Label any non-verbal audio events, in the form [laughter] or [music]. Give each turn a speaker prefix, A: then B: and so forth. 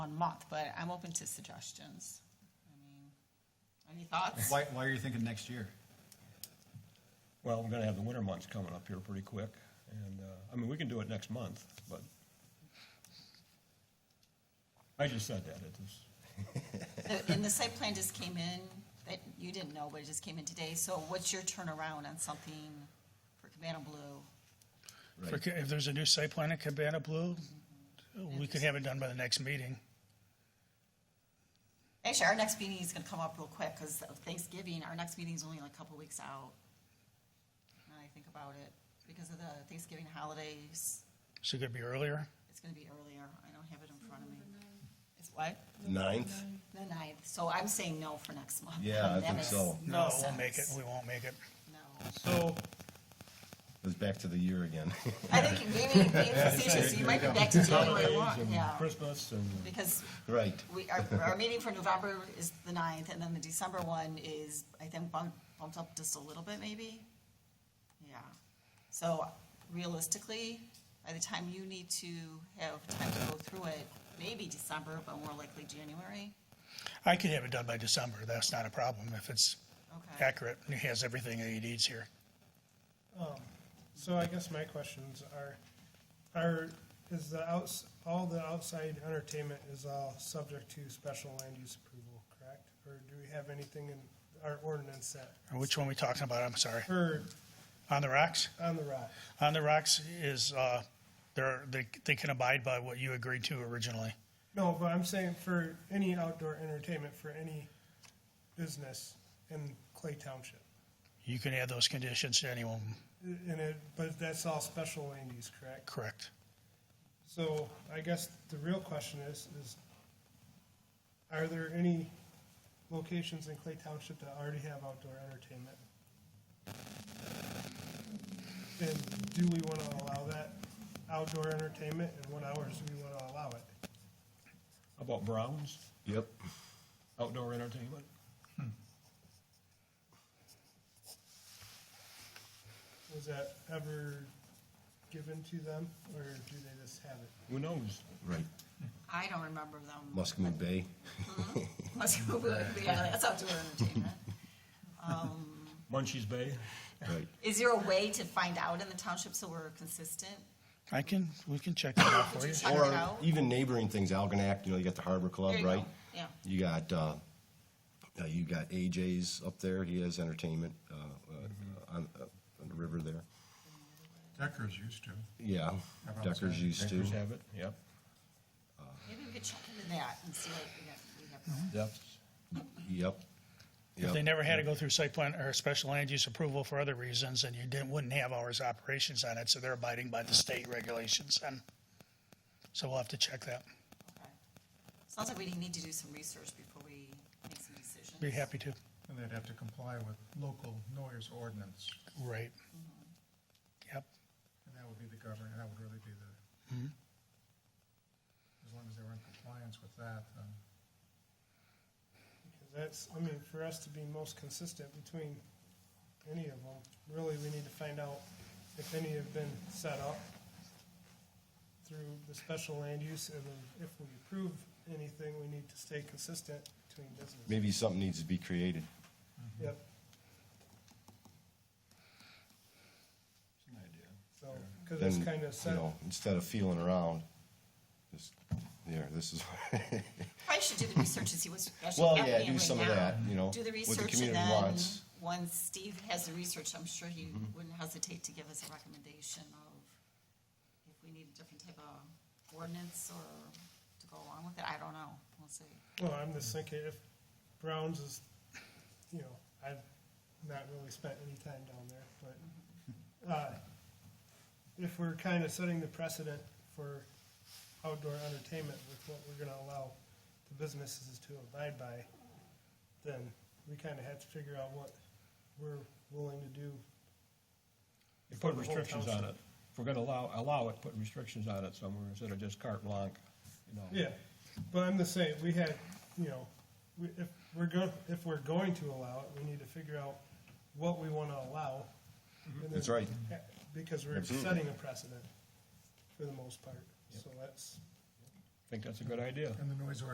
A: month, but I'm open to suggestions. I mean, Any thoughts?
B: Why, why are you thinking next year?
C: Well, we're gonna have the winter months coming up here pretty quick, and, uh, I mean, we can do it next month, but. I just said that, it was,
A: The- [laughs] And the site plan just came in, that you didn't know, but it just came in today, so what's your turnaround on something for Cabana Blue?
D: For- If there's a new site plan at Cabana Blue, we could
A: just-
D: have it done by the next meeting.
A: Actually, our next meeting is gonna come up real quick, because of Thanksgiving, our next meeting's only like a couple weeks out. Now that I think about it, because of the Thanksgiving holidays,
D: So it could be earlier.
A: it's gonna be earlier, I don't have it in front of me. It's what?
E: Ninth?
A: The ninth, so I'm saying no for next month.
E: Yeah, I
A: That
E: think
A: makes
E: so.
D: No, we'll
A: sense.
D: make it. We won't make it.
A: No.
C: so,
E: It's back to the year again. [laughs]
A: I think maybe, maybe facetious, you might be back to January
C: holidays
A: one, yeah,
C: and Christmas and,
A: because
E: Right.
A: we, our, our meeting for November is the ninth, and then the December one is, I think, bumped, bumped up just a little bit, maybe? Yeah, so realistically, by the time you need to have time to go through it, maybe December, but more likely January,
D: I could have it done by December. That's not a problem if it's
A: okay?
D: accurate and it has everything that he needs here.
F: So I guess my questions are, are, is the outs, all the outside entertainment is all subject to special land use approval, correct? Or do we have anything in our ordinance that,
D: Or Which one we talking about? I'm sorry.
F: or
D: On the rocks?
F: on the rock?
D: On the rocks is, uh, they're, they, they can abide by what you agreed to originally.
F: No, but I'm saying for any outdoor entertainment, for any business in Clay Township.
D: You can add those conditions to anyone,
F: And it, but that's all special land use, correct?
D: correct?
F: So I guess the real question is, is are there any locations in Clay Township that already have outdoor entertainment? And do we want to allow that outdoor entertainment and what hours do we want to allow it?
C: how about Browns,
E: Yep.
C: outdoor entertainment?
F: Was that ever given to them or do they just have it?
C: Who knows?
E: Right.
A: I don't remember them.
E: Muscatine Bay.
A: [laughs] Must- yeah, that's outdoor entertainment.
C: Munchies Bay,
E: Right.
A: Is there a way to find out in the township so we're consistent?
D: I can, we can check that out for you.
A: I don't
E: Or
A: know.
E: even neighboring things, Algonac, you know, you got the Harbor Club,
A: There you go.
E: right?
A: Yeah.
E: You got, uh, uh, you got AJ's up there. He has entertainment, uh,
D: Mm-hmm.
E: uh, on, uh, on the river there.
G: Deckers used to.
E: Yeah.
G: About
E: Deckers
G: same.
E: used to.
C: Deckers have it, yep,
A: Maybe we could check into that and see what we have- we have. going.
C: depths.
E: Yep.
D: If they
E: Yep.
D: never had to go through site plan or special land use approval for other reasons, and you didn't, wouldn't have hours of operations on it, so they're abiding by the state regulations, and so we'll have to check that.
A: Okay. Sounds like we need to do some research before we make some decisions.
D: Be happy to.
G: And they'd have to comply with local noise ordinance,
D: Right. Yep,
G: and that would be the governor, that would really be the, as long as they were in compliance with that, then,
F: Because that's, I mean, for us to be most consistent between any of them, really, we need to find out if any have been set up through the special land use, and then if we approve anything, we need to stay consistent between businesses.
E: Maybe something needs to be created.
F: Yep,
C: It's an idea.
F: so, because it's
E: Then,
F: kind of
E: You
F: set,
E: know, instead of feeling around, just, there,
D: [laughs]
E: this is. [laughs]
A: Probably should do the research and see what's actually
E: Well,
A: happening
E: yeah, do
A: right
E: some of
A: now.
E: that, you know,
A: Do the
E: what the
A: research and
E: community
A: then,
E: wants. Mm-hmm.
A: once Steve has the research, I'm sure he wouldn't hesitate to give us a recommendation of if we need a different type of ordinance or to go along with it. I don't know. We'll see.
F: well, I'm just thinking if Browns is, you know, I've not really spent any time down there, but, uh, if we're kind of setting the precedent for outdoor entertainment with what we're gonna allow the businesses to abide by, then we kind of have to figure out what we're willing to do.
C: You put
F: For the whole
C: restrictions on it.
F: township.
C: If we're gonna allow, allow it, put restrictions on it somewhere instead of just carte blanche, you know.
F: Yeah, but I'm just saying, we had, you know, we, if we're go, if we're going to allow it, we need to figure out what we want to allow. and then-
E: Mm-hmm. That's right.
F: Because we're
E: Absolutely.
F: setting a precedent for the most part, so that's.
C: Think that's a good idea.
G: and the noise ordinance